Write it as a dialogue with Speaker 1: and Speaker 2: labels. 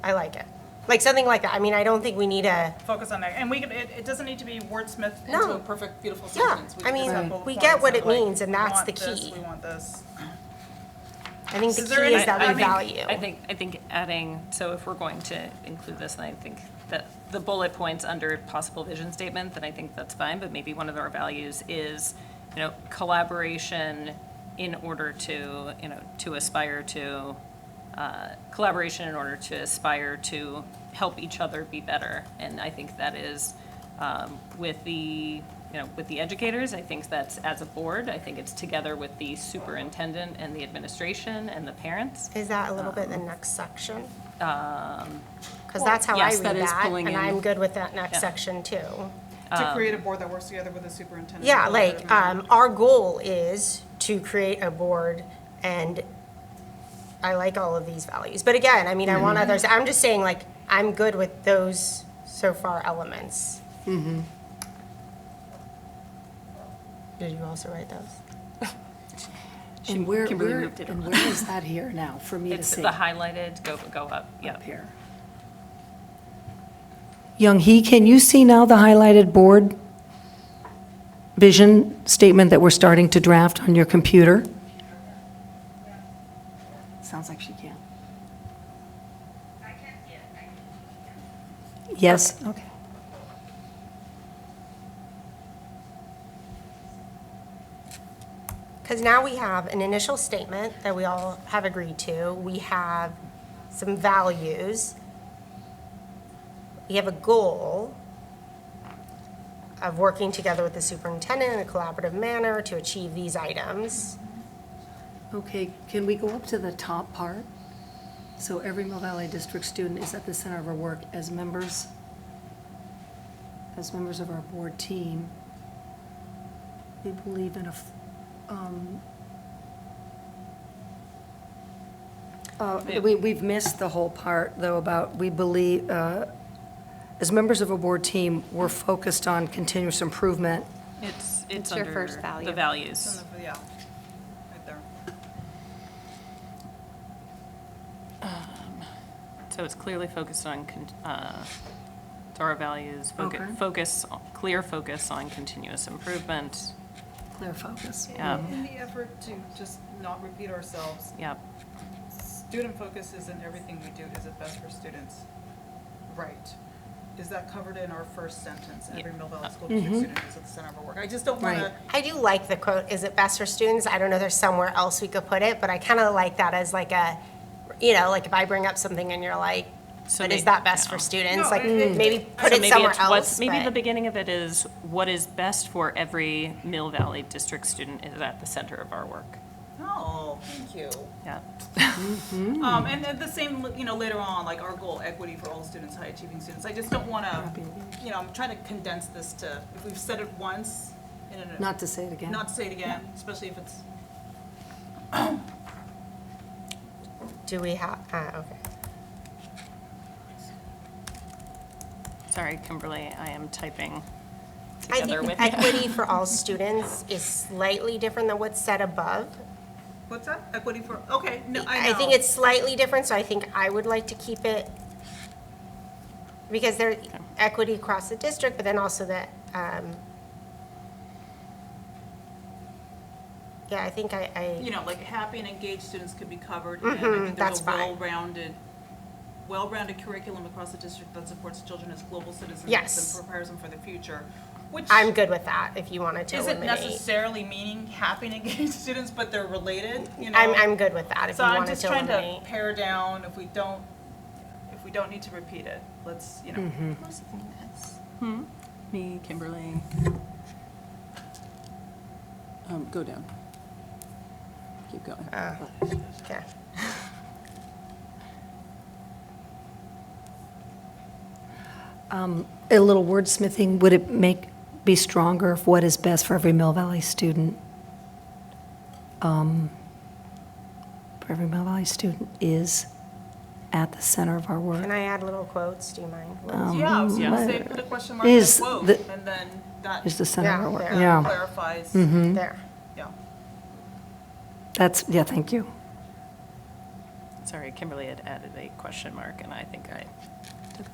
Speaker 1: I like it. Like something like that. I mean, I don't think we need a,
Speaker 2: focus on that. And we can, it, it doesn't need to be wordsmithed
Speaker 1: No.
Speaker 2: into a perfect, beautiful
Speaker 1: yeah,
Speaker 2: sentence.
Speaker 1: I
Speaker 2: can just have
Speaker 1: mean,
Speaker 2: bullet
Speaker 1: we get
Speaker 2: points
Speaker 1: what
Speaker 2: of
Speaker 1: it
Speaker 2: like,
Speaker 1: means and
Speaker 2: we
Speaker 1: that's
Speaker 2: want
Speaker 1: the
Speaker 2: this,
Speaker 1: key.
Speaker 2: We want this.
Speaker 1: I think the
Speaker 2: Is there
Speaker 1: key is
Speaker 2: any-
Speaker 1: that
Speaker 2: I
Speaker 1: we
Speaker 2: think-
Speaker 1: value.
Speaker 3: I think, I think adding, so if we're going to include this, and I think that the bullet points under possible vision statement, then I think that's fine, but maybe one of our values is, you know, collaboration in order to, you know, to aspire to, uh, collaboration in order to aspire to help each other be better. And I think that is, um, with the, you know, with the educators, I think that's as a board, I think it's together with the superintendent and the administration and the parents.
Speaker 1: Is that a little bit
Speaker 3: Um,
Speaker 1: the next section? Because that's how I
Speaker 3: yes,
Speaker 1: read
Speaker 3: that is
Speaker 1: that,
Speaker 3: pulling
Speaker 1: and
Speaker 3: in-
Speaker 1: I'm good with that next
Speaker 3: Yeah.
Speaker 1: section too.
Speaker 2: To create a board that works together with the superintendent.
Speaker 1: Um, Yeah,
Speaker 2: board
Speaker 1: like,
Speaker 2: member.
Speaker 1: um, our goal is to create a board and I like all of these values. But again, I mean, I
Speaker 3: Mm-hmm.
Speaker 1: want others, I'm just saying like, I'm good with those so far elements.
Speaker 3: Mm-hmm.
Speaker 1: Did you also write those?
Speaker 4: And where,
Speaker 3: Kimberly
Speaker 4: where,
Speaker 3: moved it
Speaker 4: and
Speaker 3: around.
Speaker 4: where is that here now for me to
Speaker 3: It's the
Speaker 4: see?
Speaker 3: highlighted, go, go up, yeah.
Speaker 4: Up here. Young Hee, can you see now the highlighted board vision statement that we're starting to draft on your computer? Sounds like she can. Yes? Okay.
Speaker 1: Because now we have an initial statement that we all have agreed to. We have some values. We have a goal of working together with the superintendent in a collaborative manner to achieve these items.
Speaker 4: Okay, can we go up to the top part? So every Mill Valley District student is at the center of our work as members, as members of our board team. We believe in a, f- um, uh, we, we've missed the whole part, though, about we believe, uh, as members of a board team, we're focused on continuous improvement.
Speaker 3: It's, it's
Speaker 5: It's your
Speaker 3: under
Speaker 5: first value.
Speaker 3: the
Speaker 2: It's
Speaker 3: values.
Speaker 2: in the- Yeah, right there.
Speaker 3: So it's clearly focused on, con- uh, it's our values,
Speaker 4: Okay.
Speaker 3: focus, focus, clear focus on continuous improvement.
Speaker 4: Clear focus.
Speaker 3: Yeah.
Speaker 2: In the effort to just not repeat ourselves,
Speaker 3: Yep,
Speaker 2: student focus is in everything we do. Is it best for students? Right. Is that covered in our first sentence? Every Mill
Speaker 1: Uh,
Speaker 2: Valley School
Speaker 1: mm-hmm.
Speaker 2: District student is at the center of our work. I just don't want
Speaker 4: Right.
Speaker 2: to
Speaker 1: I do like the quote, is it best for students? I don't know, there's somewhere else we could put it, but I kind of like that as like a, you know, like if I bring up something and you're like,
Speaker 3: So
Speaker 1: but
Speaker 3: they-
Speaker 1: is that best for
Speaker 3: yeah.
Speaker 1: students?
Speaker 2: No,
Speaker 1: Like,
Speaker 2: it- it-
Speaker 1: maybe
Speaker 3: So
Speaker 1: put it
Speaker 3: maybe
Speaker 1: somewhere
Speaker 3: it's what's-
Speaker 1: else.
Speaker 3: Maybe
Speaker 1: but-
Speaker 3: the beginning of it is, what is best for every Mill Valley District student is at the center of our work.
Speaker 2: Oh, thank you.
Speaker 3: Yeah,
Speaker 4: Hmm.
Speaker 2: Um, and then the same, you know, later on, like our goal, equity for all students, high achieving students. I just don't want to, you know, I'm trying to condense this to, if we've said it once, in a-
Speaker 4: Not to say it again.
Speaker 2: Not to say it again, especially if it's,
Speaker 1: Do we have, uh, okay.
Speaker 3: sorry, Kimberly, I am typing
Speaker 1: I
Speaker 3: together
Speaker 1: think
Speaker 3: with you.
Speaker 1: equity for all students is slightly different than what's said above.
Speaker 2: what's that? Equity for, okay, no, I know.
Speaker 1: I think it's slightly different, so I think I would like to keep it, because there, equity across the district, but then also the, um, yeah, I think I,
Speaker 2: You
Speaker 1: I,
Speaker 2: know, like happy and engaged students could be covered. and I
Speaker 1: Mhm,
Speaker 2: think there's
Speaker 1: that's
Speaker 2: a
Speaker 1: fine.
Speaker 2: Well-rounded, well-rounded curriculum across the district that supports children as global citizens.
Speaker 1: Yes.
Speaker 2: And prepares them for the future, which.
Speaker 1: I'm good with that, if you wanted to
Speaker 2: Isn't
Speaker 1: eliminate.
Speaker 2: necessarily meaning happy and engaged students, but they're related, you know?
Speaker 1: I'm, I'm good with that, if you
Speaker 2: So I'm
Speaker 1: wanted
Speaker 2: just
Speaker 1: to
Speaker 2: trying to
Speaker 1: eliminate.
Speaker 2: pare down, if we don't, if we don't need to repeat it, let's, you know.
Speaker 4: Mm-hmm.
Speaker 6: Me, Kimberly. Um, go down. Keep going.
Speaker 1: Okay.
Speaker 4: a little wordsmithing, would it make, be stronger of what is best for every Mill Valley student? Um, For every Mill Valley student is at the center of our work.
Speaker 1: Can I add little quotes, do you mind?
Speaker 3: Um,
Speaker 2: Yeah, I was gonna
Speaker 4: yeah.
Speaker 2: say, put a question mark
Speaker 4: Is
Speaker 2: and a quote,
Speaker 4: the-
Speaker 2: and then that
Speaker 4: Is the center of
Speaker 1: Yeah,
Speaker 4: our work,
Speaker 1: there.
Speaker 4: yeah. Mm-hmm.
Speaker 2: clarifies,
Speaker 1: There.
Speaker 2: yeah.
Speaker 4: That's, yeah, thank you.
Speaker 3: sorry, Kimberly had added a question mark, and I think I